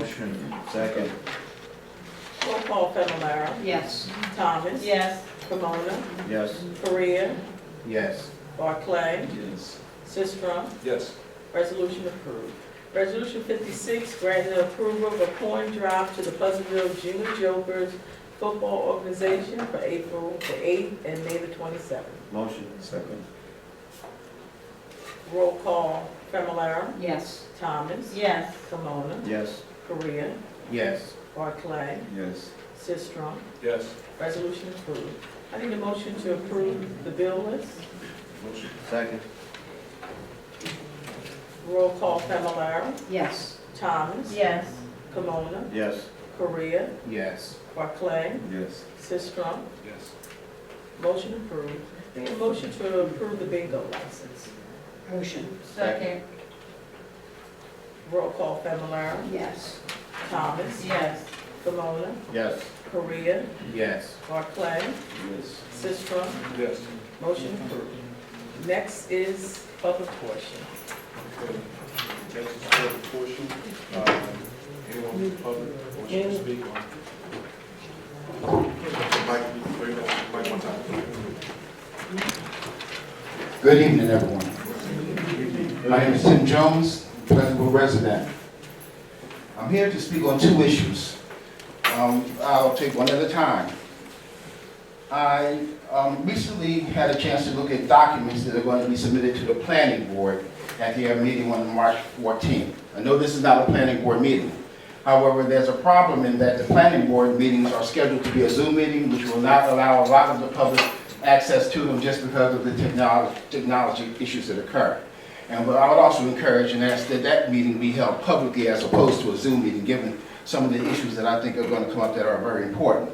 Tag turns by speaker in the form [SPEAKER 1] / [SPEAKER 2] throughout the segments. [SPEAKER 1] Motion, second.
[SPEAKER 2] Roll call Fennelara,
[SPEAKER 3] Yes.
[SPEAKER 2] Thomas.
[SPEAKER 3] Yes.
[SPEAKER 2] Pomona,
[SPEAKER 1] Yes.
[SPEAKER 2] Korea,
[SPEAKER 1] Yes.
[SPEAKER 2] Barclay,
[SPEAKER 1] Yes.
[SPEAKER 2] Sistrum.
[SPEAKER 1] Yes.
[SPEAKER 2] Resolution approved. Resolution fifty-six, granting approval of a coin drop to the Pleasantville Junior Jokers Football Organization for April the eighth and May the twenty-seventh.
[SPEAKER 1] Motion, second.
[SPEAKER 2] Roll call Fennelara,
[SPEAKER 3] Yes.
[SPEAKER 2] Thomas.
[SPEAKER 3] Yes.
[SPEAKER 2] Pomona,
[SPEAKER 1] Yes.
[SPEAKER 2] Korea,
[SPEAKER 1] Yes.
[SPEAKER 2] Barclay,
[SPEAKER 1] Yes.
[SPEAKER 2] Sistrum.
[SPEAKER 4] Yes.
[SPEAKER 2] Resolution approved. I need a motion to approve the bill list.
[SPEAKER 4] Motion.
[SPEAKER 1] Second.
[SPEAKER 2] Roll call Fennelara,
[SPEAKER 3] Yes.
[SPEAKER 2] Thomas.
[SPEAKER 3] Yes.
[SPEAKER 2] Pomona,
[SPEAKER 1] Yes.
[SPEAKER 2] Korea,
[SPEAKER 1] Yes.
[SPEAKER 2] Barclay,
[SPEAKER 1] Yes.
[SPEAKER 2] Sistrum.
[SPEAKER 4] Yes.
[SPEAKER 2] Motion approved. Need a motion to approve the bingo license.
[SPEAKER 3] Motion.
[SPEAKER 1] Second.
[SPEAKER 2] Roll call Familar,
[SPEAKER 3] Yes.
[SPEAKER 2] Thomas,
[SPEAKER 3] Yes.
[SPEAKER 2] Camona,
[SPEAKER 1] Yes.
[SPEAKER 2] Korea,
[SPEAKER 1] Yes.
[SPEAKER 2] Barclay,
[SPEAKER 1] Yes.
[SPEAKER 2] Sistrum.
[SPEAKER 4] Yes.
[SPEAKER 2] Motion approved. Next is public portion.
[SPEAKER 4] Okay. Next is public portion. Uh, Anyone in the public wishing to speak on? Mike, wait, Mike, one time.
[SPEAKER 5] Good evening, everyone. My name is Tim Jones, Pleasantville resident. I'm here to speak on two issues. Um, I'll take one at a time. I um, recently had a chance to look at documents that are going to be submitted to the planning board at their meeting on March 14th. I know this is not a planning board meeting. However, there's a problem in that the planning board meetings are scheduled to be a Zoom meeting, which will not allow a lot of the public access to them just because of the technol- technology issues that occur. And what I would also encourage and ask that that meeting be held publicly as opposed to a Zoom meeting, given some of the issues that I think are going to come up that are very important.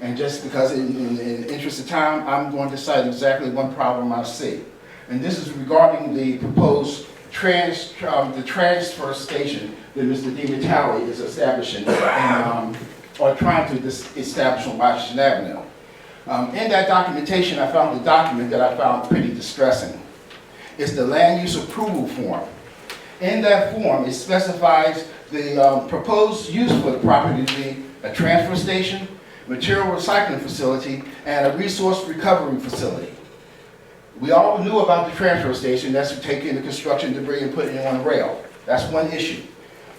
[SPEAKER 5] And just because in, in, in the interest of time, I'm going to cite exactly one problem I see. And this is regarding the proposed trans, um, the transfer station that Mr. DiMattei is establishing, and, um, or trying to dis- establish on Washington Avenue. Um, in that documentation, I found a document that I found pretty distressing. It's the land use approval form. In that form, it specifies the um, proposed use for the property to be a transfer station, material recycling facility, and a resource recovery facility. We all knew about the transfer station, that's to take in the construction debris and put it on a rail. That's one issue.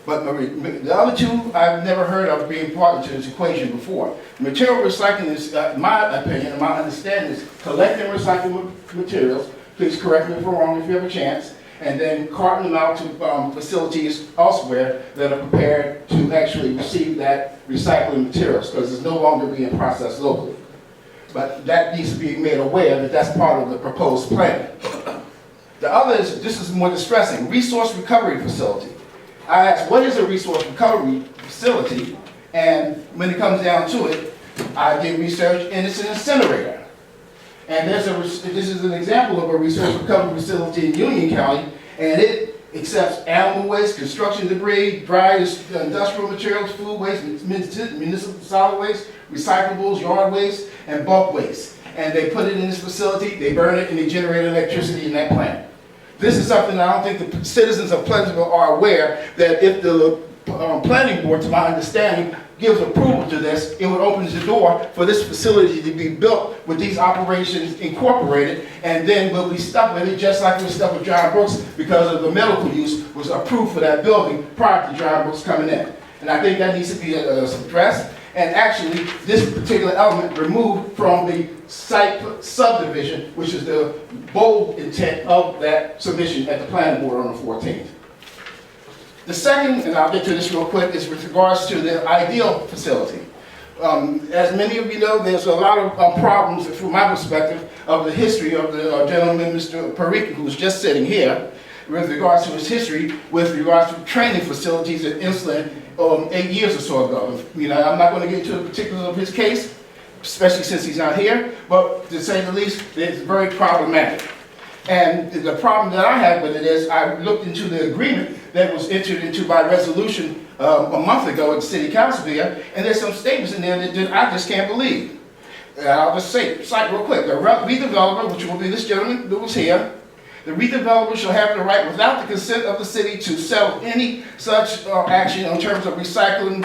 [SPEAKER 5] But the re- the other two, I've never heard of being part of this equation before. Material recycling is, uh, my opinion, my understanding is collecting recyclable materials, please correct me if I'm wrong if you have a chance, and then carting them out to um, facilities elsewhere that are prepared to actually receive that recycling materials, because it's no longer being processed locally. But that needs to be made aware that that's part of the proposed plan. The other is, this is more distressing, resource recovery facility. I asked, what is a resource recovery facility? And when it comes down to it, I did research and it's an incinerator. And there's a, this is an example of a resource recovery facility in Union County, and it accepts animal waste, construction debris, dry industrial materials, food waste, municipal solid waste, recyclables, yard waste, and bulk waste. And they put it in this facility, they burn it, and they generate electricity in that plant. This is something I don't think the citizens of Pleasantville are aware, that if the um, planning board, to my understanding, gives approval to this, it would open the door for this facility to be built with these operations incorporated, and then we'll be stuck with it, just like we're stuck with John Brooks, because of the medical use was approved for that building prior to John Brooks coming in. And I think that needs to be uh, addressed, and actually, this particular element removed from the site subdivision, which is the bold intent of that submission at the planning board on the 14th. The second, and I'll get to this real quick, is with regards to the ideal facility. Um, As many of you know, there's a lot of uh, problems, from my perspective, of the history of the uh, gentleman, Mr. Parika, who's just sitting here, with regards to his history, with regards to training facilities in Islip, um, eight years or so ago. You know, I'm not going to get into the particulars of his case, especially since he's not here, but to say the least, it's very problematic. And the problem that I have with it is, I looked into the agreement that was entered into by resolution um, a month ago at the city council here, and there's some statements in there that- that I just can't believe. And I'll just say, cite real quick, the re- redeveloper, which will be this gentleman that was here, The redeveloper shall have the right, without the consent of the city, to settle any such uh, action in terms of recycling,